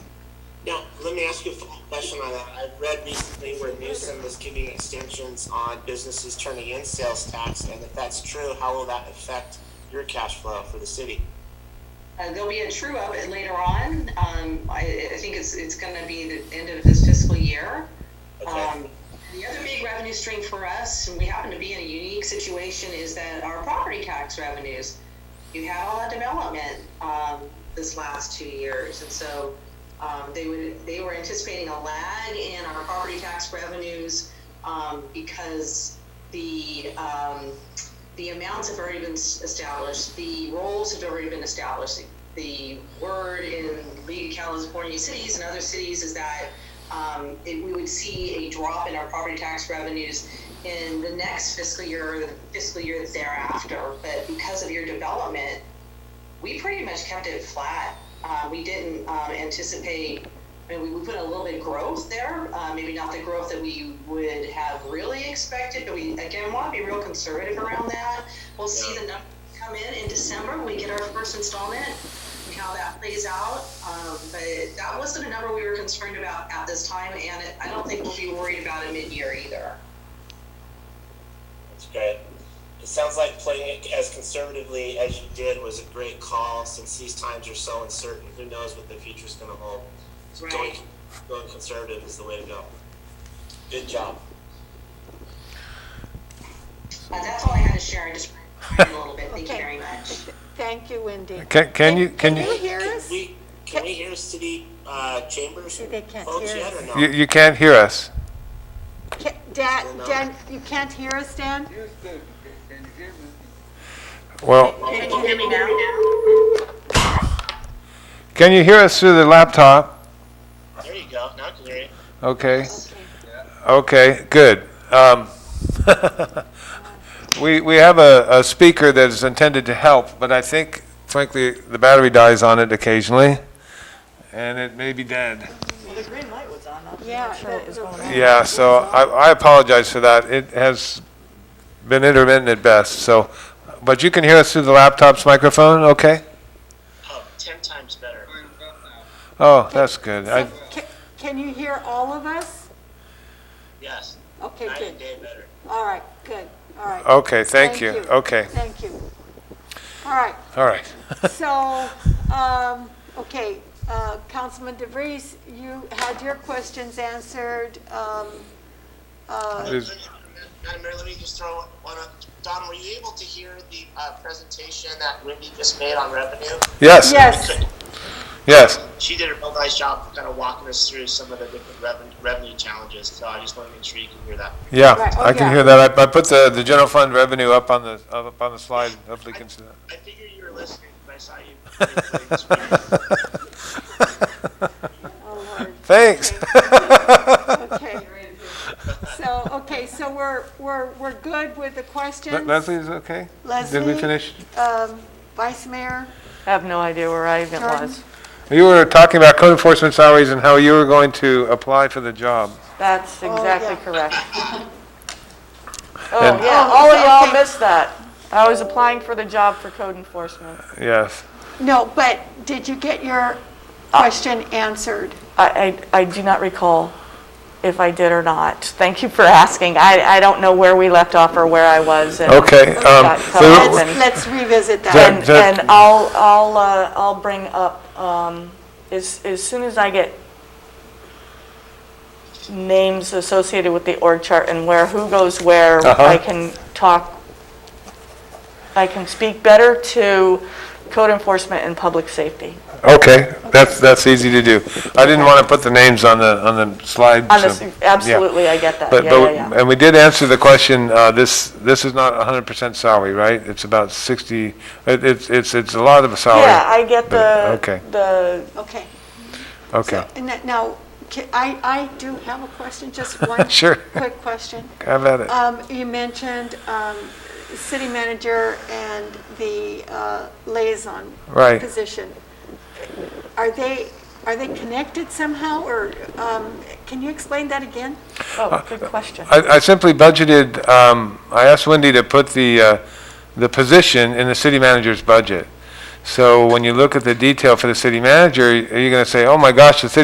to ask you a follow-up question on that. I read recently where Newsom is giving extensions on businesses turning in sales tax, and if that's true, how will that affect your cash flow for the city? Uh, there'll be a true up later on. Um, I, I think it's, it's gonna be the end of this fiscal year. Okay. Um, the other big revenue stream for us, and we happen to be in a unique situation, is that our property tax revenues. You had all that development, um, this last two years, and so, um, they would, they were anticipating a lag in our property tax revenues, um, because the, um, the amounts have already been s- established, the roles have already been established. The word in League of California Cities and other cities is that um, it, we would see a drop in our property tax revenues in the next fiscal year or the fiscal year that's thereafter. But because of your development, we pretty much kept it flat. Uh, we didn't um, anticipate, I mean, we, we put a little bit of growth there, uh, maybe not the growth that we would have really expected, but we, again, want to be real conservative around that. We'll see the numbers come in in December when we get our first installment and how that plays out. Um, but that wasn't a number we were concerned about at this time, and it, I don't think we'll be worried about it mid year either. That's great. It sounds like playing it as conservatively as you did was a great call since these times are so uncertain. Who knows what the future's going to hold? So going, Right. going conservative is the way to go. Good job. Uh, that's all I had to share. I just ran a little bit. Thank you very much. Thank you, Wendy. Can, can you, can Can you you, hear us? We, can we hear city uh, chambers They can't folks hear yet us. or no? you, you can't hear us? Ca- Dan, Dan, you can't hear us, Dan? Houston, can you hear me? Well, Can you hear me now? can you hear us through the laptop? There you go. Now I can hear you. Okay, okay, good. Um, We, we have a, a speaker that is intended to help, but I think frankly, the battery dies on it occasionally, and it may be dead. The green light was on, I'm Yeah, not sure what the- was the- going on. Yeah, so I, I apologize for that. It has been intermittent at best, so, but you can hear us through the laptop's microphone, okay? Oh, 10 times better. Oh, that's good. I, Ca- Can you hear all of us? Yes. Okay, Night good. and day better. All right, good, all right. okay, thank you. Okay, Thank you. All right, all right. so, um, okay, uh, Councilman DeVries, you had your questions answered. Um, uh, Is- Madam Mayor, let me just throw one up. Don, were you able to hear the uh, presentation that Wendy just made on revenue? Yes, Yes, yes. She did a real nice job of kind of walking us through some of the different revenue, revenue challenges, so I just want to make sure you can hear that. Yeah, Right, oh, I can yeah. hear that. I, I put the, the general fund revenue up on the, up on the slide. Hopefully you can see I figured you were listening, but I saw you. that. oh, Lord. Thanks. Okay. So, okay, so we're, we're, we're good with the questions? Leslie, is it okay? Did we Leslie? finish? Um, Vice Mayor? I have no idea where I even Jordan? was. You were talking about code enforcement salaries and how you were going to apply for the job. That's exactly Oh, yeah. correct. And- Oh, yeah, Oh, all of so- y'all okay. missed that. I was applying for the job for code enforcement. Yes. No, but did you get your question answered? I, I I do not recall if I did or not. Thank you for asking. I, I don't know where we left off or where I was. and Okay, got um, cut so- off Let's, and- let's revisit Jen. that. And, that- and I'll, I'll, uh, I'll bring up, um, as, as soon as I get names associated with the org chart and where, who goes where, Uh-huh. I can talk, I can speak better to code enforcement and public safety. Okay, that's, that's easy to do. I didn't want to put the names on the, on the slide. On so- this- yeah. absolutely, I get that. But, Yeah, yeah, but, yeah. and we did answer the question, uh, this, this is not hundred percent salary, right? It's about sixty, it, it's, it's, it's a lot of a salary. Yeah, I get the, Okay. the, Okay. Okay, And that- now, ca- I, I do have a question, just one. Sure. Quick question. have at it. Um, you mentioned, um, city manager and the, uh, liaison. Right. Position. Are they, are they connected somehow, or, um, can you explain that again? oh, good question. I, I simply budgeted, um, I asked Wendy to put the, uh, the position in the city manager's budget. So when you look at the detail for the city manager, you're gonna say, oh my gosh, the city